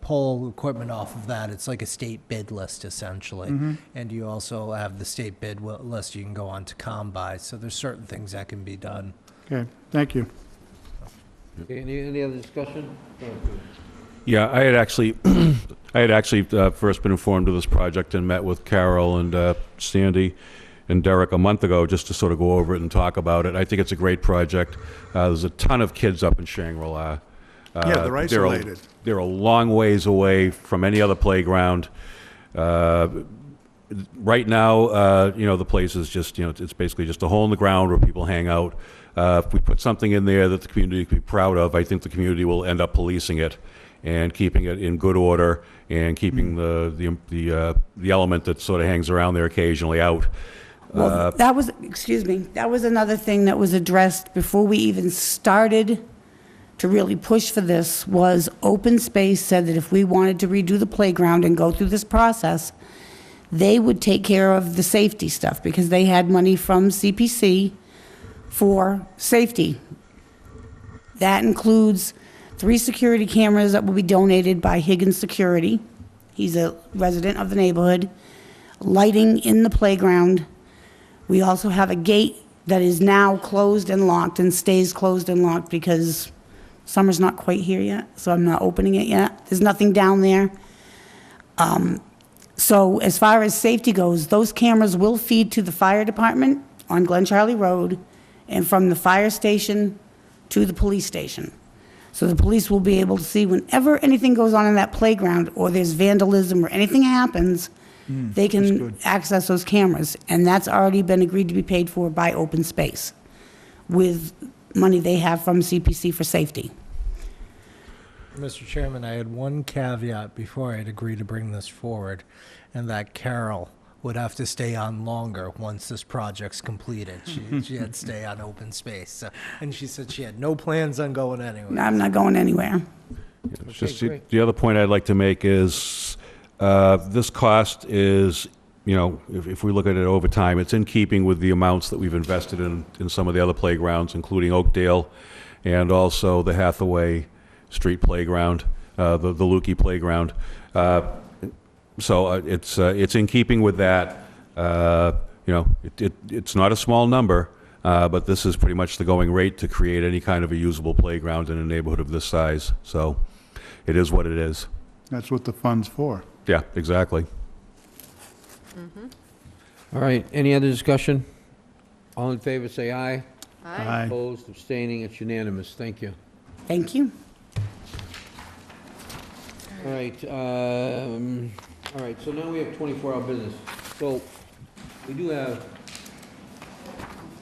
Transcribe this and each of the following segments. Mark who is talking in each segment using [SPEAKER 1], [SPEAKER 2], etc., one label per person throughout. [SPEAKER 1] pull equipment off of that. It's like a state bid list essentially. And you also have the state bid wi- list you can go on to combine. So there's certain things that can be done.
[SPEAKER 2] Okay, thank you.
[SPEAKER 3] Okay, any, any other discussion?
[SPEAKER 4] Yeah, I had actually, I had actually uh, first been informed of this project and met with Carol and uh, Sandy and Derek a month ago just to sort of go over it and talk about it. I think it's a great project. Uh, There's a ton of kids up in Shangri-La. Uh,
[SPEAKER 5] Yeah, they're
[SPEAKER 4] a-
[SPEAKER 5] isolated.
[SPEAKER 4] They're a long ways away from any other playground. Uh, right now, uh, you know, the place is just, you know, it's basically just a hole in the ground where people hang out. Uh, If we put something in there that the community could be proud of, I think the community will end up policing it and keeping it in good order and keeping the, the, the, uh, the element that sort of hangs around there occasionally out.
[SPEAKER 6] Well, that was, excuse me, that was another thing that was addressed before we even started to really push for this, was open space said that if we wanted to redo the playground and go through this process, they would take care of the safety stuff, because they had money from CPC for safety. That includes three security cameras that will be donated by Higgins Security. He's a resident of the neighborhood. Lighting in the playground. We also have a gate that is now closed and locked and stays closed and locked because summer's not quite here yet, so I'm not opening it yet. There's nothing down there. So as far as safety goes, those cameras will feed to the fire department on Glen Charlie Road and from the fire station to the police station. So the police will be able to see whenever anything goes on in that playground or there's vandalism or anything happens, they can access those cameras. And that's already been agreed to be paid for by open space with money they have from CPC for safety.
[SPEAKER 1] Mr. Chairman, I had one caveat before I'd agree to bring this forward, and that Carol would have to stay on longer once this project's completed. She, she had to stay on open space. So, and she said she had no plans on going anywhere.
[SPEAKER 6] I'm not going anywhere.
[SPEAKER 4] It's Just the-
[SPEAKER 3] great.
[SPEAKER 4] the other point I'd like to make is, uh, this cost is, you know, if, if we look at it over time, it's in keeping with the amounts that we've invested in, in some of the other playgrounds, including Oakdale and also the Hathaway Street Playground, uh, the, the Lukey Playground. Uh, so uh, it's, uh, it's in keeping with that. Uh, You know, it, it, it's not a small number, uh, but this is pretty much the going rate to create any kind of a usable playground in a neighborhood of this size. So it is what it is.
[SPEAKER 2] That's what the fund's for.
[SPEAKER 4] Yeah, exactly.
[SPEAKER 3] All right, any other discussion? All in favor, say aye.
[SPEAKER 2] Aye.
[SPEAKER 3] Opposed, abstaining, it's unanimous, thank you.
[SPEAKER 6] Thank you.
[SPEAKER 3] All right, um, all right, so now we have 24-hour business. So we do have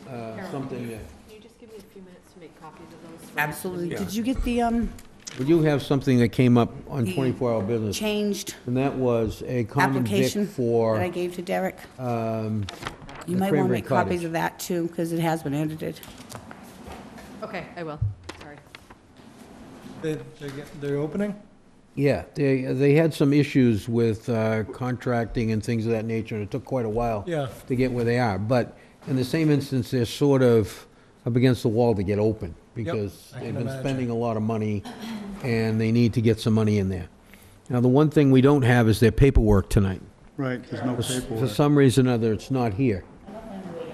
[SPEAKER 3] uh, something that,
[SPEAKER 7] Can you just give me a few minutes to make copies of those? for-
[SPEAKER 6] Absolutely. Did you get the, um,
[SPEAKER 3] we do have something that came up on 24-hour business,
[SPEAKER 6] changed?
[SPEAKER 3] and that was a common vic
[SPEAKER 6] application
[SPEAKER 3] for...
[SPEAKER 6] that I gave to Derek.
[SPEAKER 3] um,
[SPEAKER 6] You
[SPEAKER 3] the
[SPEAKER 6] might want to
[SPEAKER 3] Cranberry
[SPEAKER 6] make copies
[SPEAKER 3] Cottage.
[SPEAKER 6] of that too, because it has been edited.
[SPEAKER 7] Okay, I will, sorry.
[SPEAKER 1] They, they're, get- they're opening?
[SPEAKER 3] Yeah, they, they had some issues with uh, contracting and things of that nature, and it took quite a while
[SPEAKER 1] Yeah.
[SPEAKER 3] to get where they are. But in the same instance, they're sort of up against the wall to get open, because
[SPEAKER 1] I
[SPEAKER 3] they've
[SPEAKER 1] can
[SPEAKER 3] been
[SPEAKER 1] imagine.
[SPEAKER 3] spending a lot of money, and they need to get some money in there. Now, the one thing we don't have is their paperwork tonight.
[SPEAKER 2] Right, there's no
[SPEAKER 3] For s- For
[SPEAKER 2] paperwork.
[SPEAKER 3] some reason or other, it's not here.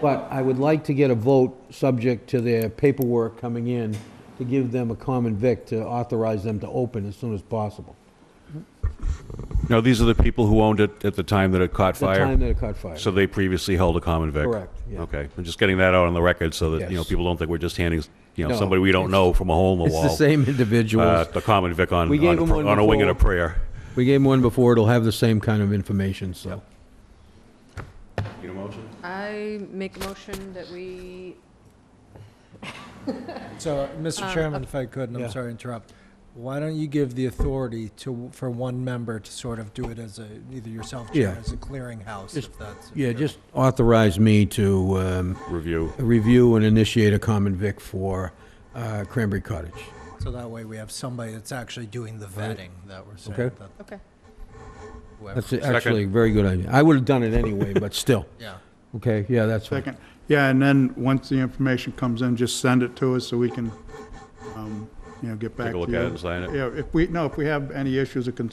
[SPEAKER 3] But I would like to get a vote, subject to their paperwork coming in, to give them a common vic to authorize them to open as soon as possible.
[SPEAKER 4] Now, these are the people who owned it at the time that it caught
[SPEAKER 3] The time
[SPEAKER 4] fire?
[SPEAKER 3] that it caught fire.
[SPEAKER 4] So they previously held a common vic?
[SPEAKER 3] Correct, yeah.
[SPEAKER 4] Okay, I'm just getting that out on the record so that, you know,
[SPEAKER 3] Yes.
[SPEAKER 4] people don't think we're just handing, you know,
[SPEAKER 3] No,
[SPEAKER 4] somebody we don't know from a hole in the
[SPEAKER 3] It's
[SPEAKER 4] wall.
[SPEAKER 3] the same
[SPEAKER 4] uh,
[SPEAKER 3] individuals.
[SPEAKER 4] The common vic on,
[SPEAKER 3] We
[SPEAKER 4] on
[SPEAKER 3] gave
[SPEAKER 4] a
[SPEAKER 3] them
[SPEAKER 4] pr-
[SPEAKER 3] one
[SPEAKER 4] on a wing and a
[SPEAKER 3] before.
[SPEAKER 4] prayer.
[SPEAKER 3] We gave them one before, it'll have the same kind of information, so.
[SPEAKER 4] Need a motion?
[SPEAKER 7] I make a motion that we,
[SPEAKER 1] So, Mr. Chairman, if I could, and
[SPEAKER 3] yeah.
[SPEAKER 1] I'm sorry to interrupt, why don't you give the authority to, for one member to sort of do it as a, either yourself, Chair,
[SPEAKER 3] Yeah.
[SPEAKER 1] as a clearinghouse, if that's.
[SPEAKER 3] Yeah, just authorize me to um,
[SPEAKER 4] Review.
[SPEAKER 3] review and initiate a common vic for uh, Cranberry Cottage.
[SPEAKER 1] So that way we have somebody that's actually doing the vetting that we're saying.
[SPEAKER 3] Okay.
[SPEAKER 1] that
[SPEAKER 7] okay.
[SPEAKER 1] whoever-
[SPEAKER 3] That's actually a very good idea. I would have done it anyway, but still.
[SPEAKER 1] Yeah.
[SPEAKER 3] Okay, yeah, that's fine.
[SPEAKER 2] Second, yeah, and then, once the information comes in, just send it to us so we can um, you know, get back to
[SPEAKER 4] Take a
[SPEAKER 2] you.
[SPEAKER 4] look at it and sign it.
[SPEAKER 2] Yeah, if we, no, if we have any issues or concerns